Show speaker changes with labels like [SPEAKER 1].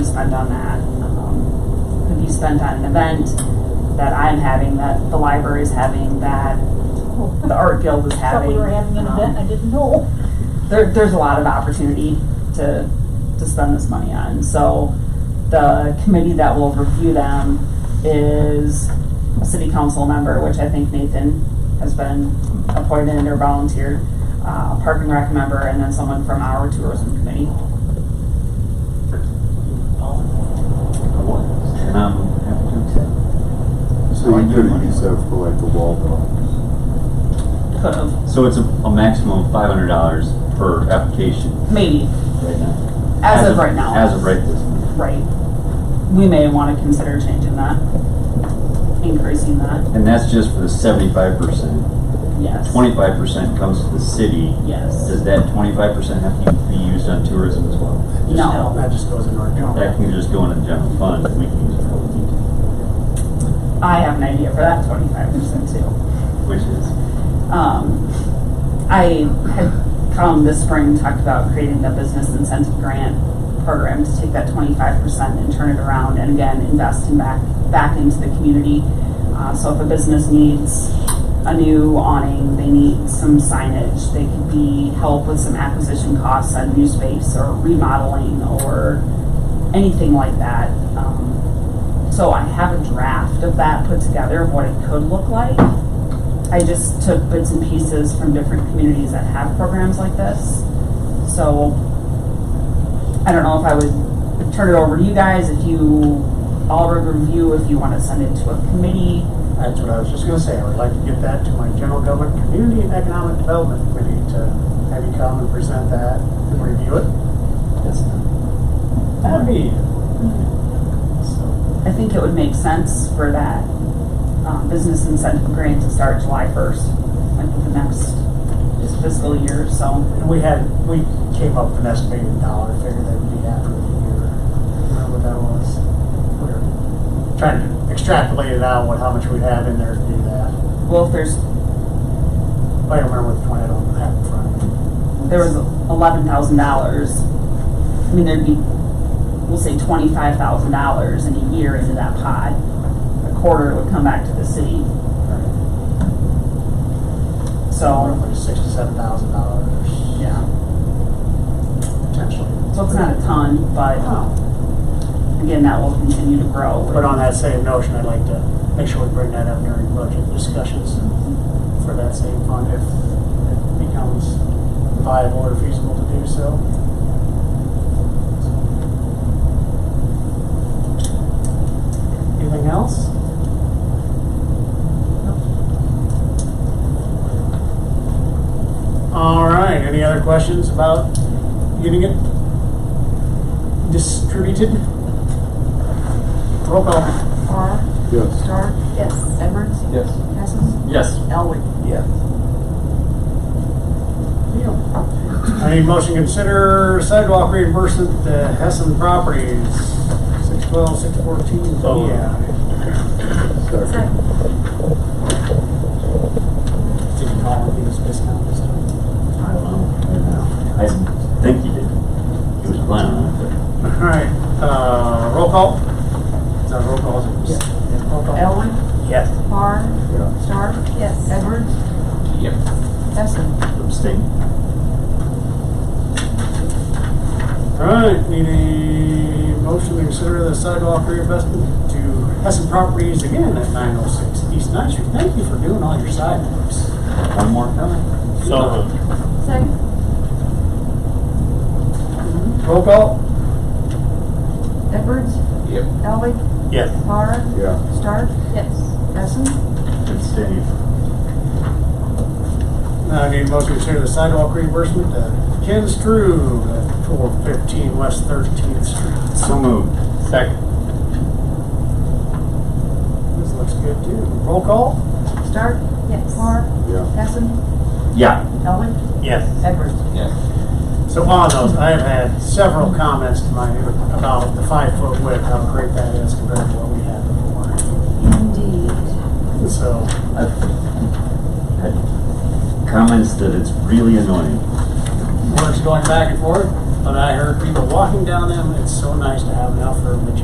[SPEAKER 1] spent on that um, could be spent on an event that I'm having, that the library's having, that the art guild is
[SPEAKER 2] Thought
[SPEAKER 1] having.
[SPEAKER 2] we were having an
[SPEAKER 1] Um,
[SPEAKER 2] event, I didn't know.
[SPEAKER 1] there, there's a lot of opportunity to, to spend this money on. So the committee that will review them is a city council member, which I think Nathan has been appointed or volunteered, uh, park and rec member, and then someone from our tourism committee.
[SPEAKER 3] Um, happy to accept.
[SPEAKER 4] So you could have used that for like a wall though.
[SPEAKER 1] Could have,
[SPEAKER 3] So it's a, a maximum of five hundred dollars per application
[SPEAKER 1] maybe,
[SPEAKER 3] right now.
[SPEAKER 1] as of right now.
[SPEAKER 3] As of right this minute.
[SPEAKER 1] Right. We may want to consider changing that, increasing that,
[SPEAKER 3] And that's just for the seventy-five percent.
[SPEAKER 1] yes.
[SPEAKER 3] Twenty-five percent comes to the city.
[SPEAKER 1] Yes.
[SPEAKER 3] Does that twenty-five percent have to be used on tourism as well?
[SPEAKER 1] No.
[SPEAKER 5] That just goes into our
[SPEAKER 3] That
[SPEAKER 5] account.
[SPEAKER 3] can just go in the general fund, we can use it how we need to,
[SPEAKER 1] I have an idea for that twenty-five percent too.
[SPEAKER 3] which is,
[SPEAKER 1] Um, I had come this spring and talked about creating the business incentive grant program to take that twenty-five percent and turn it around and again, invest in back, back into the community. Uh, so if a business needs a new awning, they need some signage, they could be help with some acquisition costs on new space or remodeling or anything like that. Um, So I have a draft of that put together of what it could look like. I just took bits and pieces from different communities that have programs like this. So I don't know if I would turn it over to you guys, if you all would review, if you want to send it to a committee.
[SPEAKER 5] That's what I was just gonna say, I would like to get that to my general government, community and economic development committee to have you come and present that and review it.
[SPEAKER 3] that's not.
[SPEAKER 5] That'd be,
[SPEAKER 1] I think it would make sense for that um, business incentive grant to start July 1st, like the next fiscal year, so.
[SPEAKER 5] and we had, we came up with an estimated dollar figure that would be after the year. Remember what that was? We were Trying to extrapolate it out, what, how much we'd have in there to do that.
[SPEAKER 1] Well, if there's,
[SPEAKER 5] I don't remember which one I don't have in front of me.
[SPEAKER 1] there was $11,000, I mean, there'd be, we'll say $25,000 in a year into that pod. A quarter would come back to the city. So,
[SPEAKER 5] Roughly six to seven thousand dollars
[SPEAKER 1] yeah,
[SPEAKER 5] potentially.
[SPEAKER 1] so it's not a ton, but
[SPEAKER 5] Oh.
[SPEAKER 1] again, that will continue to grow.
[SPEAKER 5] But on that same notion, I'd like to make sure we bring that up during budget discussions for that same fund if it becomes viable or feasible to do so. Anything else? All right, any other questions about getting it distributed? Roll call.
[SPEAKER 6] Carl,
[SPEAKER 4] Yes.
[SPEAKER 6] Stark,
[SPEAKER 2] Yes.
[SPEAKER 6] Edwards,
[SPEAKER 3] Yes.
[SPEAKER 6] Cousins,
[SPEAKER 3] Yes.
[SPEAKER 6] Elway.
[SPEAKER 3] Yes.
[SPEAKER 5] I need motion to consider sidewalk reimbursement to Hessen Properties, six twelve, six fourteen,
[SPEAKER 3] Oh.
[SPEAKER 5] yeah.
[SPEAKER 4] Second.
[SPEAKER 5] Did you call and give us discount this time?
[SPEAKER 3] I don't know, I don't know. I think you did, he was planning on it,
[SPEAKER 5] All right, uh, roll call? Is that roll call? Yes. Roll call.
[SPEAKER 6] Elway,
[SPEAKER 5] Yes.
[SPEAKER 6] Carr,
[SPEAKER 4] Yeah.
[SPEAKER 6] Stark. Yes. Edwards,
[SPEAKER 3] but. Yep.
[SPEAKER 6] Cousins.
[SPEAKER 3] Abstain.
[SPEAKER 5] All right, need a motion to consider the sidewalk reimbursement to Hessen Properties again at nine oh six East Ninth Street. Thank you for doing all your sidewalks.
[SPEAKER 3] One more comment?
[SPEAKER 5] So
[SPEAKER 6] Second.
[SPEAKER 5] Roll call?
[SPEAKER 6] Edwards. Yep. Elway,
[SPEAKER 5] Yes.
[SPEAKER 6] Carr,
[SPEAKER 4] Yeah.
[SPEAKER 6] Stark. Yes. Cousins,
[SPEAKER 3] Abstain.
[SPEAKER 5] Uh, I need a motion to consider the sidewalk reimbursement to Ken Strube at four fifteen West Thirteenth Street.
[SPEAKER 3] So moved. Second.
[SPEAKER 5] This looks good too. Roll call?
[SPEAKER 6] Stark. Yes. Carr,
[SPEAKER 4] Yeah.
[SPEAKER 6] Cousins,
[SPEAKER 3] Yeah.
[SPEAKER 6] Elway,
[SPEAKER 5] Yes.
[SPEAKER 6] Edwards.
[SPEAKER 5] So on those, I have had several comments to my, about the five foot width, how great that is compared to what we had before.
[SPEAKER 6] Indeed.
[SPEAKER 5] So,
[SPEAKER 3] I've had comments that it's really annoying.
[SPEAKER 5] words going back and forth? But I heard people walking down them, it's so nice to have an outfit.